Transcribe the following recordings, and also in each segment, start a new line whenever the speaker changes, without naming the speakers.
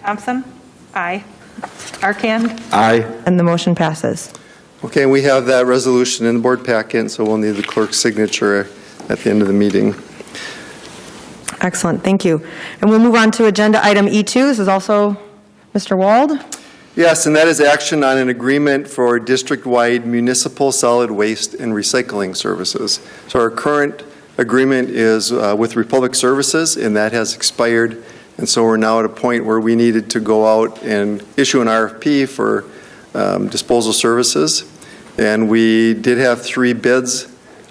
Thompson? Aye. Arcand?
Aye.
and the motion passes.
Okay, we have that resolution in the board packet, so we'll need the clerk's signature at the end of the meeting.
Excellent, thank you. And we'll move on to Agenda Item E2. This is also Mr. Wald.
Yes, and that is action on an agreement for district-wide municipal solid waste and recycling services. So our current agreement is uh, with Republic Services, and that has expired. And so we're now at a point where we needed to go out and issue an RFP for um, disposal services. And we did have three bids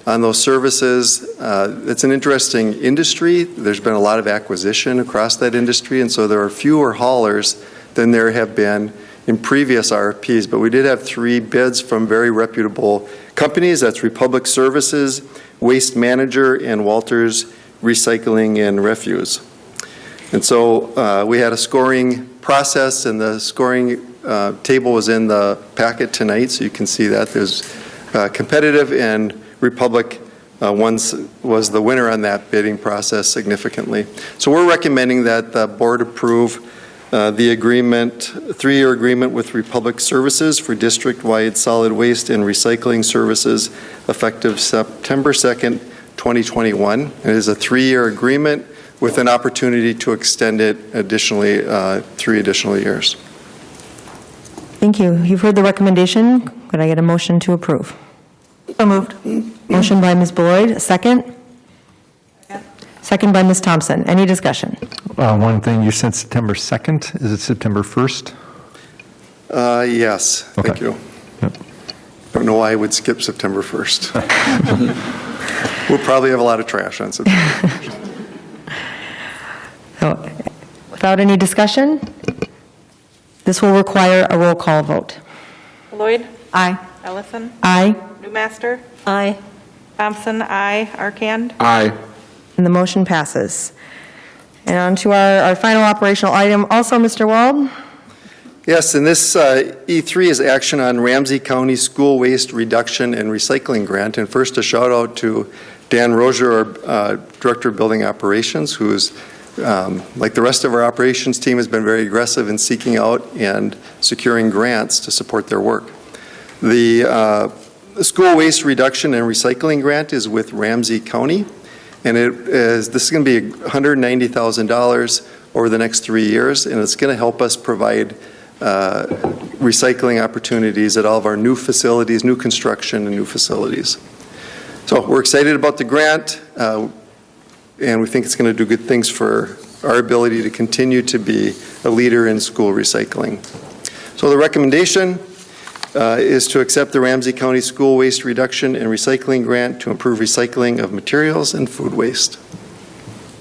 on those services. Uh, It's an interesting industry. There's been a lot of acquisition across that industry, and so there are fewer haulers than there have been in previous RFPs, but we did have three bids from very reputable companies. That's Republic Services, Waste Manager, and Walters Recycling and Refuse. And so uh, we had a scoring process, and the scoring uh, table was in the packet tonight, so you can see that. There's uh, competitive, and Republic uh, once was the winner on that bidding process significantly. So we're recommending that the board approve uh, the agreement, three-year agreement with Republic Services for district-wide solid waste and recycling services effective September 2nd, 2021. It is a three-year agreement with an opportunity to extend it additionally, uh, three additional years.
Thank you. You've heard the recommendation. Could I get a motion to approve? So moved. Motion by Ms. Beloit, a second? Second by Ms. Thompson. Any discussion?
Uh, One thing, you said September 2nd, is it September 1st?
Uh, Yes, thank
Okay.
you.
Yep.
Don't know why I would skip September 1st. We'll probably have a lot of trash on September.
So, Oh, Without any discussion, this will require a roll call vote.
Lloyd?
Aye.
Ellison?
Aye.
Newmaster?
Aye.
Thompson? Aye. Arcand?
Aye.
And the motion passes. And on to our, our final operational item, also Mr. Wald.
Yes, and this uh, E3 is action on Ramsey County School Waste Reduction and Recycling Grant. And first, a shout out to Dan Rozier, our uh, Director of Building Operations, who is, um, like the rest of our operations team, has been very aggressive in seeking out and securing grants to support their work. The uh, School Waste Reduction and Recycling Grant is with Ramsey County, and it is, this is going to be $190,000 over the next three years, and it's going to help us provide uh, recycling opportunities at all of our new facilities, new construction, and new facilities. So we're excited about the grant, uh, and we think it's going to do good things for our ability to continue to be a leader in school recycling. So the recommendation uh, is to accept the Ramsey County School Waste Reduction and Recycling Grant to improve recycling of materials and food waste.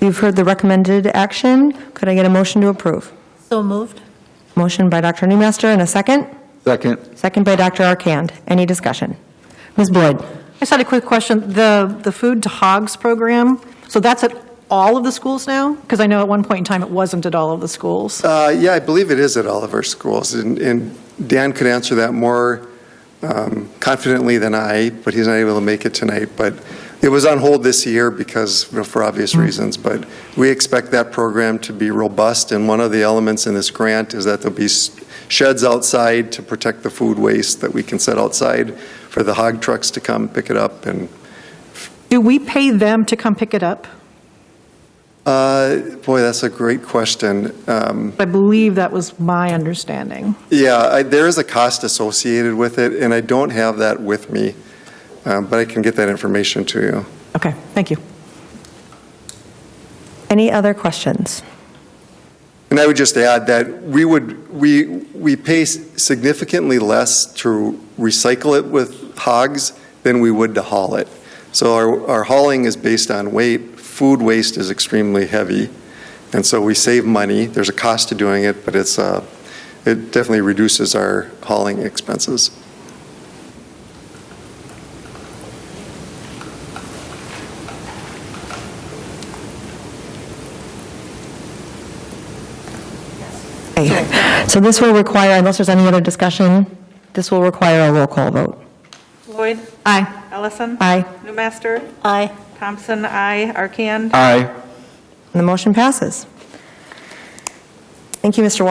You've heard the recommended action. Could I get a motion to approve?
So moved.
Motion by Dr. Newmaster and a second? Second. Second by Dr. Arcand. Any discussion? Ms. Boyd?
I just had a quick question. The, the Food to Hogs program, so that's at all of the schools now? Because I know at one point in time, it wasn't at all of the schools.
Uh, Yeah, I believe it is at all of our schools, and- and Dan could answer that more um, confidently than I, but he's not able to make it tonight. But it was on hold this year because, you know, for obvious reasons, but we expect that program to be robust, and one of the elements in this grant is that there'll be s- sheds outside to protect the food waste that we can set outside for the hog trucks to come pick it up and
Do we pay them to come pick it up?
Uh, Boy, that's a great question. Um,
I believe that was my understanding.
Yeah, I- there is a cost associated with it, and I don't have that with me, um, but I can get that information to you.
Okay, thank you.
Any other questions?
And I would just add that we would, we, we pay s- significantly less to recycle it with hogs than we would to haul it. So our, our hauling is based on weight. Food waste is extremely heavy, and so we save money. There's a cost to doing it, but it's, uh, it definitely reduces our hauling expenses.
Okay. So this will require, unless there's any other discussion, this will require a roll call vote.
Lloyd?
Aye.
Ellison?
Aye.
Newmaster?
Aye.
Thompson? Aye. Arcand?
Aye.
And the motion passes. Thank you, Mr. Wald.